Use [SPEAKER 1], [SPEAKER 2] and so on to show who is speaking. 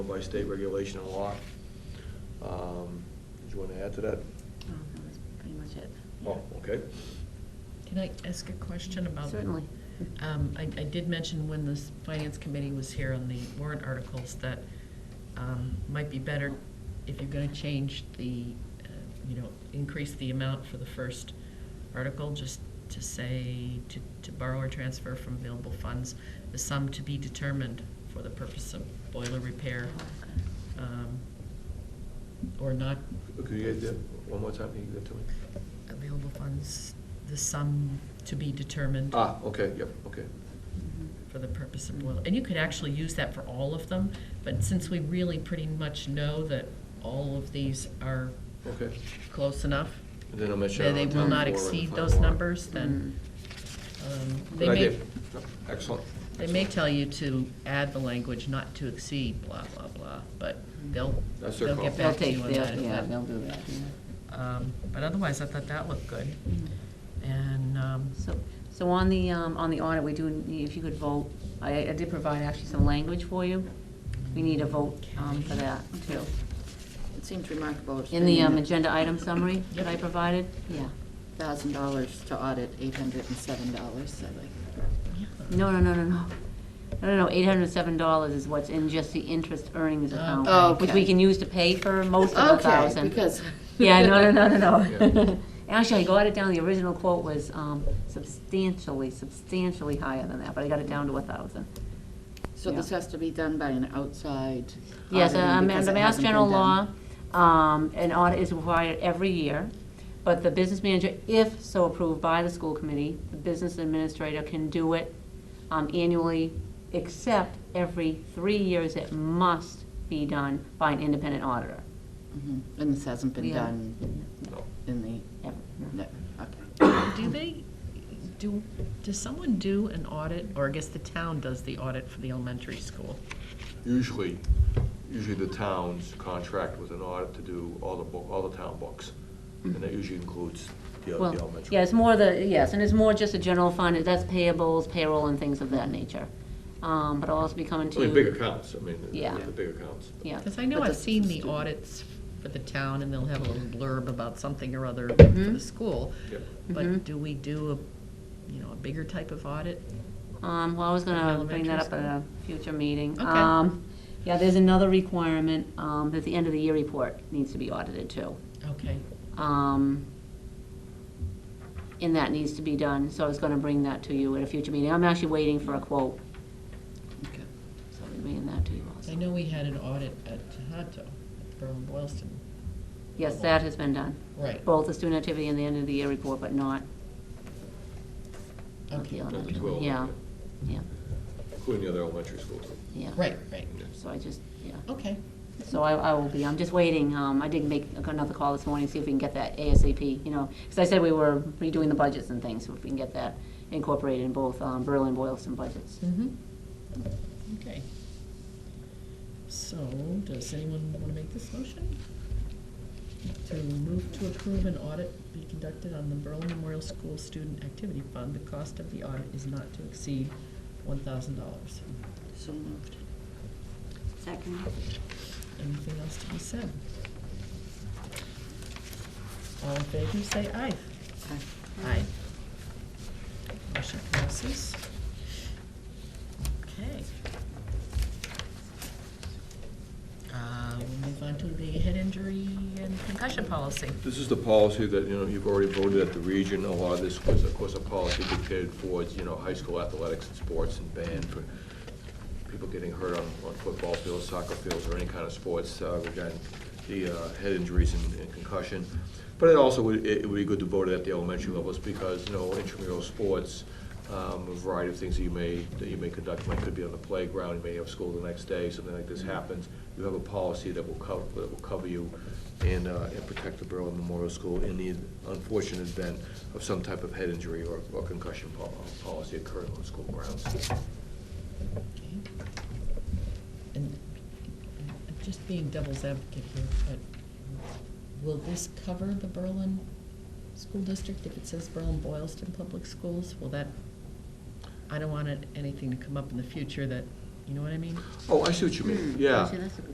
[SPEAKER 1] by state regulation and law. Um, Did you want to add to that?
[SPEAKER 2] Oh, that was pretty much it.
[SPEAKER 1] Oh, okay.
[SPEAKER 3] Can I ask a question about?
[SPEAKER 2] Certainly.
[SPEAKER 3] Um, I, I did mention when the finance committee was here on the warrant articles that, um, might be better if you're gonna change the, uh, you know, increase the amount for the first article, just to say, to, to borrow or transfer from available funds, the sum to be determined for the purpose of boiler repair, um, or not
[SPEAKER 1] Could you get that one more time, Can you give that to me?
[SPEAKER 3] available funds, the sum to be determined.
[SPEAKER 1] Ah, okay, yep, okay.
[SPEAKER 2] Mm-hmm.
[SPEAKER 3] for the purpose of boil, and you could actually use that for all of them, but since we really pretty much know that all of these are
[SPEAKER 1] Okay.
[SPEAKER 3] close enough,
[SPEAKER 1] And then I'll make sure.
[SPEAKER 3] that they
[SPEAKER 1] on
[SPEAKER 3] will
[SPEAKER 1] town
[SPEAKER 3] not
[SPEAKER 1] floor and
[SPEAKER 3] exceed
[SPEAKER 1] town
[SPEAKER 3] those
[SPEAKER 1] floor.
[SPEAKER 3] numbers, then, um, they
[SPEAKER 1] Good idea.
[SPEAKER 3] may,
[SPEAKER 1] Yep, Excellent.
[SPEAKER 3] they may tell you to add the language not to exceed blah, blah, blah, but they'll,
[SPEAKER 1] That's their
[SPEAKER 3] they'll
[SPEAKER 1] call.
[SPEAKER 3] get
[SPEAKER 2] They'll
[SPEAKER 3] back to you
[SPEAKER 2] take,
[SPEAKER 3] on that.
[SPEAKER 2] they'll,
[SPEAKER 3] if
[SPEAKER 2] yeah,
[SPEAKER 3] that-
[SPEAKER 2] they'll do that, yeah.
[SPEAKER 3] Um, but otherwise, I thought that looked good, and, um,
[SPEAKER 2] Mm-hmm. So, so on the, um, on the audit, we do, need- if you could vote, I, I did provide actually some language for you. We need a vote, um, for that too.
[SPEAKER 4] It seems remarkable. it's
[SPEAKER 2] In the,
[SPEAKER 4] been
[SPEAKER 2] um, agenda item summary that I
[SPEAKER 3] Yep.
[SPEAKER 2] provided, yeah.
[SPEAKER 4] Thousand dollars to audit eight hundred and seven dollars, so like,
[SPEAKER 3] yeah.
[SPEAKER 2] No, no, no, no, no. No, no, no, eight hundred and seven dollars is what's in just the interest earnings account.
[SPEAKER 4] Okay.
[SPEAKER 2] Which we can use to pay for most of the thousand.
[SPEAKER 4] okay, because.
[SPEAKER 2] Yeah, no, no, no, no,
[SPEAKER 1] Yeah.
[SPEAKER 2] no. Actually, I got it down, the original quote was um, substantially, substantially higher than that, but I got it down to a thousand.
[SPEAKER 4] So this
[SPEAKER 2] Yeah.
[SPEAKER 4] has to be done by an outside.
[SPEAKER 2] Yes,
[SPEAKER 4] auditing
[SPEAKER 2] um,
[SPEAKER 4] because
[SPEAKER 2] under
[SPEAKER 4] it
[SPEAKER 2] Mass
[SPEAKER 4] hasn't
[SPEAKER 2] General
[SPEAKER 4] been
[SPEAKER 2] law,
[SPEAKER 4] done.
[SPEAKER 2] um, an audit is required every year, but the business manager, if so approved by the school committee, the business administrator can do it um, annually, except every three years it must be done by an independent auditor.
[SPEAKER 4] Mhm. And this hasn't been
[SPEAKER 2] Yeah.
[SPEAKER 4] done in the,
[SPEAKER 2] Ever.
[SPEAKER 4] no, okay.
[SPEAKER 3] Do they, do, does someone do an audit, or I guess the town does the audit for the elementary school?
[SPEAKER 1] Usually, usually the towns contract with an audit to do all the, bo- all the town books. And that usually includes the the
[SPEAKER 2] Well,
[SPEAKER 1] elementary.
[SPEAKER 2] yeah, it's more the, yes, and it's more just a general fund, that's payables, payroll, and things of that nature. Um, but it'll also be coming
[SPEAKER 1] I
[SPEAKER 2] to.
[SPEAKER 1] mean, big accounts, I mean,
[SPEAKER 2] Yeah.
[SPEAKER 1] the big accounts.
[SPEAKER 2] Yeah,
[SPEAKER 3] Because I know
[SPEAKER 4] But
[SPEAKER 3] I've
[SPEAKER 4] that's
[SPEAKER 3] seen
[SPEAKER 4] the
[SPEAKER 3] the
[SPEAKER 4] student.
[SPEAKER 3] audits for the town, and they'll have a little blurb about something or other for
[SPEAKER 4] Mm-hmm.
[SPEAKER 3] the school.
[SPEAKER 1] Yep.
[SPEAKER 3] But
[SPEAKER 2] Mhm.
[SPEAKER 3] do we do a, you know, a bigger type of audit?
[SPEAKER 2] um, well, I was gonna bring
[SPEAKER 3] Elementary
[SPEAKER 2] that up at
[SPEAKER 3] school.
[SPEAKER 2] a future meeting.
[SPEAKER 3] Okay.
[SPEAKER 2] Um, yeah, there's another requirement, um, that the end of the year report needs to be audited too.
[SPEAKER 3] Okay,
[SPEAKER 2] Um, and that needs to be done, so I was gonna bring that to you at a future meeting. I'm actually waiting for a quote,
[SPEAKER 4] Okay.
[SPEAKER 2] so I'm bringing that to you
[SPEAKER 3] I
[SPEAKER 2] also.
[SPEAKER 3] know we had an audit at Tohoto, at Berlin Boylston.
[SPEAKER 2] Yes, that has been done,
[SPEAKER 3] Right,
[SPEAKER 2] both the student activity and the end of the year report, but not, not the
[SPEAKER 3] okay,
[SPEAKER 1] Not
[SPEAKER 2] elementary.
[SPEAKER 1] the 12,
[SPEAKER 2] Yeah, yeah,
[SPEAKER 1] Including the other elementary schools.
[SPEAKER 2] yeah.
[SPEAKER 3] right, right,
[SPEAKER 2] So I just, yeah,
[SPEAKER 3] okay.
[SPEAKER 2] so I, I will be, I'm just waiting, um, I did make another call this morning, see if we can get that ASAP, you know, because I said we were redoing the budgets and things, so if we can get that incorporated in both, um, Berlin and Boylston budgets.
[SPEAKER 3] Mm-hmm. Okay. So, does anyone want to make this motion? To move to approve an audit be conducted on the Berlin Memorial School Student Activity Fund. The cost of the audit is not to exceed one thousand dollars.
[SPEAKER 4] So moved.
[SPEAKER 2] Second.
[SPEAKER 3] Anything else to be said? All in favor, say aye.
[SPEAKER 4] Aye.
[SPEAKER 3] Aye. Motion passes. Okay. Uh, We'll move on to the head injury and concussion policy.
[SPEAKER 1] This is the policy that, you know, you've already voted at the region, a lot of this was, of course, a policy dictated towards, you know, high school athletics and sports and band for people getting hurt on, on football fields, soccer fields, or any kind of sports uh, regarding the uh, head injuries and and concussion. But it also, would it would be good to vote it at the elementary levels, because, you know, intramural sports, um, a variety of things that you may, that you may conduct, might could be on the playground, you may have school the next day, something like this happens, you have a policy that will cover, that will cover you and, uh, and protect the Berlin Memorial School in the unfortunate event of some type of head injury or or concussion pol- policy occurring on school grounds.
[SPEAKER 3] Okay. And I'm just being devil's advocate here, but will this cover the Berlin School District? If it says Berlin Boylston Public Schools, will that, I don't want it- anything to come up in the future that, you know what I mean?
[SPEAKER 1] Oh, I see what you mean, yeah.
[SPEAKER 2] Actually, that's a good